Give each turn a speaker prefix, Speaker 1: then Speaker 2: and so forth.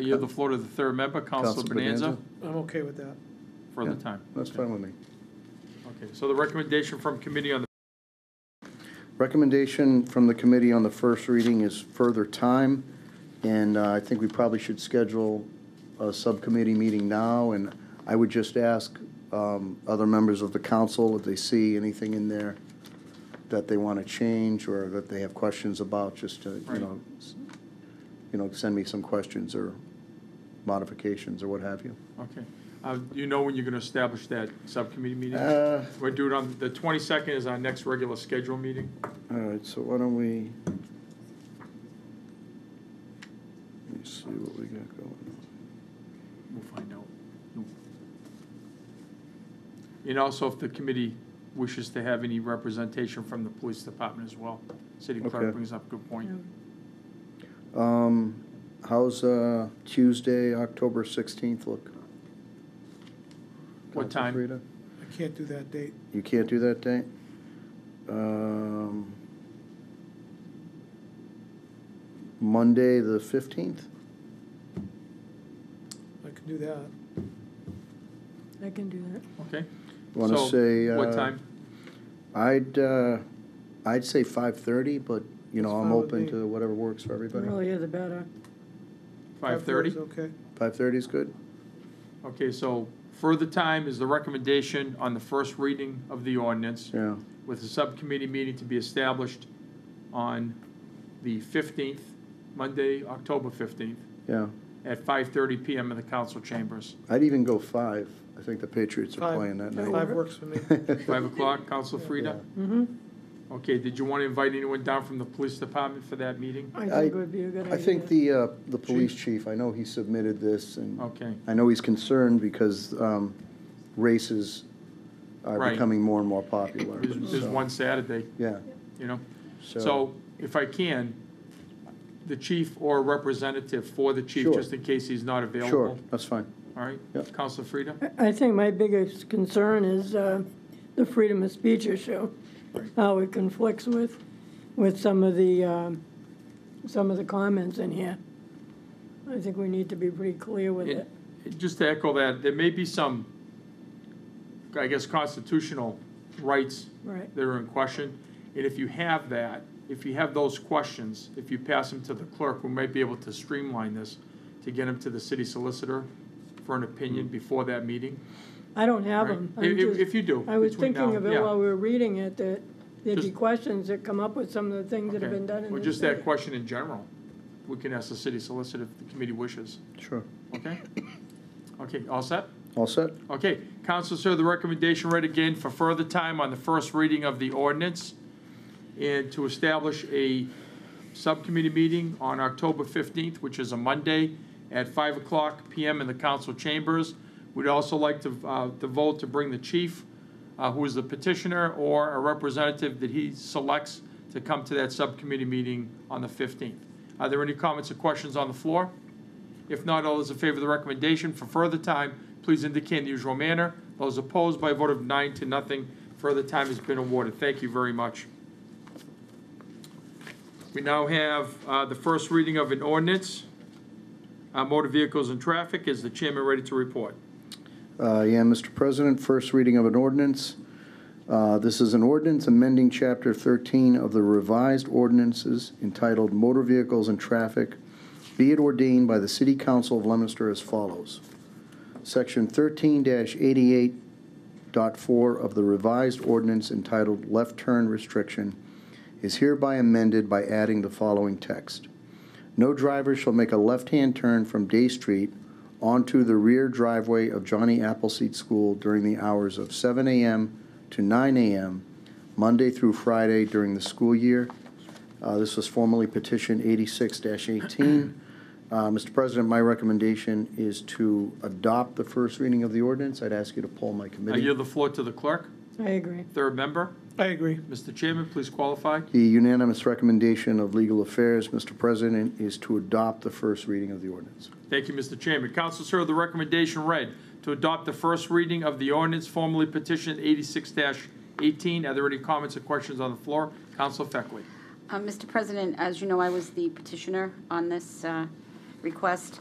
Speaker 1: yield the floor to the third member, Counselor
Speaker 2: Counselor
Speaker 1: Bonanza,
Speaker 3: I'm okay with that.
Speaker 1: for the
Speaker 2: Yeah, Uh,
Speaker 1: time.
Speaker 2: That's fine with me.
Speaker 1: Okay, so the recommendation from committee on the
Speaker 2: Recommendation from the committee on the first reading is further time, and uh, I think we probably should schedule a subcommittee meeting now, and I would just ask um, other members of the council if they see anything in there that they want to change or that they have questions about, just to, you
Speaker 1: Right.
Speaker 2: know, s- you know, send me some questions or modifications or what have you.
Speaker 1: Okay. Uh, do You know when you're going to establish that subcommittee meeting?
Speaker 2: Uh,
Speaker 1: We'll do it on, the 22nd is our next regular scheduled meeting.
Speaker 2: All right, so why don't we? Let me see what we got going.
Speaker 1: We'll find out. Mm. And also if the committee wishes to have any representation from the police department as well. City
Speaker 2: Okay.
Speaker 1: clerk brings up a good point.
Speaker 2: Um, how's, uh, Tuesday, October sixteenth look?
Speaker 1: What
Speaker 2: Council
Speaker 1: time?
Speaker 2: Frida?
Speaker 3: I can't do that date.
Speaker 2: You can't do that date? Um, Monday, the fifteenth?
Speaker 3: I can do that.
Speaker 4: I can do that.
Speaker 1: Okay?
Speaker 2: Wanna
Speaker 1: So,
Speaker 2: say,
Speaker 1: What
Speaker 2: uh,
Speaker 1: time?
Speaker 2: I'd, uh, I'd say five-thirty, but, you know,
Speaker 3: That's
Speaker 2: I'm
Speaker 3: fine with
Speaker 2: open
Speaker 3: me.
Speaker 2: to whatever works for
Speaker 4: The
Speaker 2: everybody.
Speaker 4: earlier the better.
Speaker 1: 5:30?
Speaker 3: is Okay.
Speaker 2: Five-thirty is good?
Speaker 1: Okay, so further time is the recommendation on the first reading of the ordinance
Speaker 2: Yeah,
Speaker 1: with a subcommittee meeting to be established on the 15th, Monday, October 15th,
Speaker 2: yeah.
Speaker 1: at 5:30 PM in the council chambers.
Speaker 2: I'd even go five. I think the Patriots are
Speaker 3: Five-
Speaker 2: playing that
Speaker 3: Five
Speaker 2: night.
Speaker 3: works for me.
Speaker 1: 5 o'clock, Council Frida?
Speaker 4: Mm-hmm.
Speaker 1: Okay, did you want to invite anyone down from the police department for that meeting?
Speaker 4: I
Speaker 2: I-
Speaker 4: think it would be a good idea.
Speaker 2: I think the, uh, the police chief, I know he submitted this, and
Speaker 1: Okay,
Speaker 2: I know he's concerned because um, races are
Speaker 1: Right.
Speaker 2: becoming more and more popular.
Speaker 1: there's there's
Speaker 2: so-
Speaker 1: one Saturday,
Speaker 2: Yeah,
Speaker 1: you know?
Speaker 2: so,
Speaker 1: So if I can, the chief or a representative for the chief,
Speaker 2: Sure.
Speaker 1: just in case he's not available.
Speaker 2: sure, that's fine.
Speaker 1: All right,
Speaker 2: Yep.
Speaker 1: Counselor Frida?
Speaker 4: I I think my biggest concern is uh, the freedom of speech issue, how it conflicts with, with some of the, um, some of the comments in here. I think we need to be pretty clear with it.
Speaker 1: And Just to echo that, there may be some, I guess, constitutional rights
Speaker 4: Right.
Speaker 1: that are in question. And if you have that, if you have those questions, if you pass them to the clerk, we might be able to streamline this to get them to the city solicitor for an opinion before that meeting.
Speaker 4: I don't have
Speaker 1: Right.
Speaker 4: them.
Speaker 1: If- if- if you do,
Speaker 4: I was
Speaker 1: between
Speaker 4: thinking
Speaker 1: now-
Speaker 4: of it
Speaker 1: yeah.
Speaker 4: while we were reading it, that there'd be
Speaker 1: Just-
Speaker 4: questions that come up with some of the things that have
Speaker 1: Okay.
Speaker 4: been done in
Speaker 1: Or
Speaker 4: this
Speaker 1: just that
Speaker 4: city.
Speaker 1: question in general. We can ask the city solicitor if the committee wishes,
Speaker 2: Sure.
Speaker 1: okay? Okay, all set?
Speaker 2: All set?
Speaker 1: Okay, council, sir, the recommendation read again for further time on the first reading of the ordinance and to establish a subcommittee meeting on October 15th, which is a Monday, at 5 o'clock PM in the council chambers. We'd also like to, uh, to vote to bring the chief, uh, who is the petitioner, or a representative that he selects to come to that subcommittee meeting on the 15th. Are there any comments or questions on the floor? If not, all those in favor of the recommendation for further time, please indicate in the usual manner. Those opposed by a vote of nine to nothing, further time has been awarded. Thank you very much. We now have uh, the first reading of an ordinance, uh, motor vehicles and traffic. Is the chairman ready to report?
Speaker 2: Uh, Yeah, Mr. President, first reading of an ordinance. Uh, This is an ordinance amending Chapter 13 of the revised ordinances entitled Motor Vehicles and Traffic, be it ordained by the City Council of Leominster as follows. Section 13-88.4 of the revised ordinance entitled Left Turn Restriction is hereby amended by adding the following text. No driver shall make a left-hand turn from Day Street onto the rear driveway of Johnny Appleseed School during the hours of 7 a.m. to 9 a.m., Monday through Friday during the school year. Uh, This was formerly petition 86-18. Uh, Mr. President, my recommendation is to adopt the first reading of the ordinance. I'd ask you to poll my
Speaker 1: I
Speaker 2: committee.
Speaker 1: yield the floor to the clerk.
Speaker 4: I agree.
Speaker 1: Third member,
Speaker 3: I agree.
Speaker 1: Mr. Chairman, please qualify.
Speaker 2: The unanimous recommendation of Legal Affairs, Mr. President, is to adopt the first reading of the ordinance.
Speaker 1: Thank you, Mr. Chairman. Council, sir, the recommendation read to adopt the first reading of the ordinance formerly petitioned 86-18. Are there any comments or questions on the floor? Council Feckley.
Speaker 5: Uh, Mr. President, as you know, I was the petitioner on this uh, request.